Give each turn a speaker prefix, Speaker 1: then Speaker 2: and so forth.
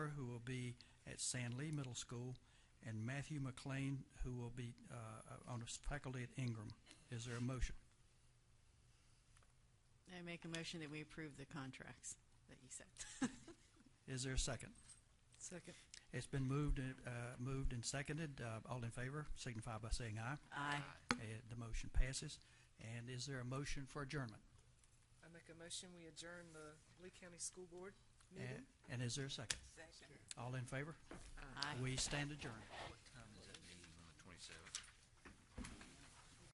Speaker 1: San Lee Middle School, and Matthew McLean, who will be uh, on as faculty at Ingram. Is there a motion?
Speaker 2: I make a motion that we approve the contracts that you said.
Speaker 1: Is there a second?
Speaker 2: Second.
Speaker 1: It's been moved, and, uh, moved and seconded. Uh, All in favor signify by saying aye.
Speaker 2: Aye.
Speaker 1: Uh, The motion passes. And is there a motion for adjournment?
Speaker 3: I make a motion, we adjourn the Lee County School Board meeting.
Speaker 1: And and is there a second?
Speaker 3: Second.
Speaker 1: All in favor?
Speaker 2: Aye.
Speaker 1: We stand adjourned.
Speaker 4: What time is that meeting on the twenty-seventh?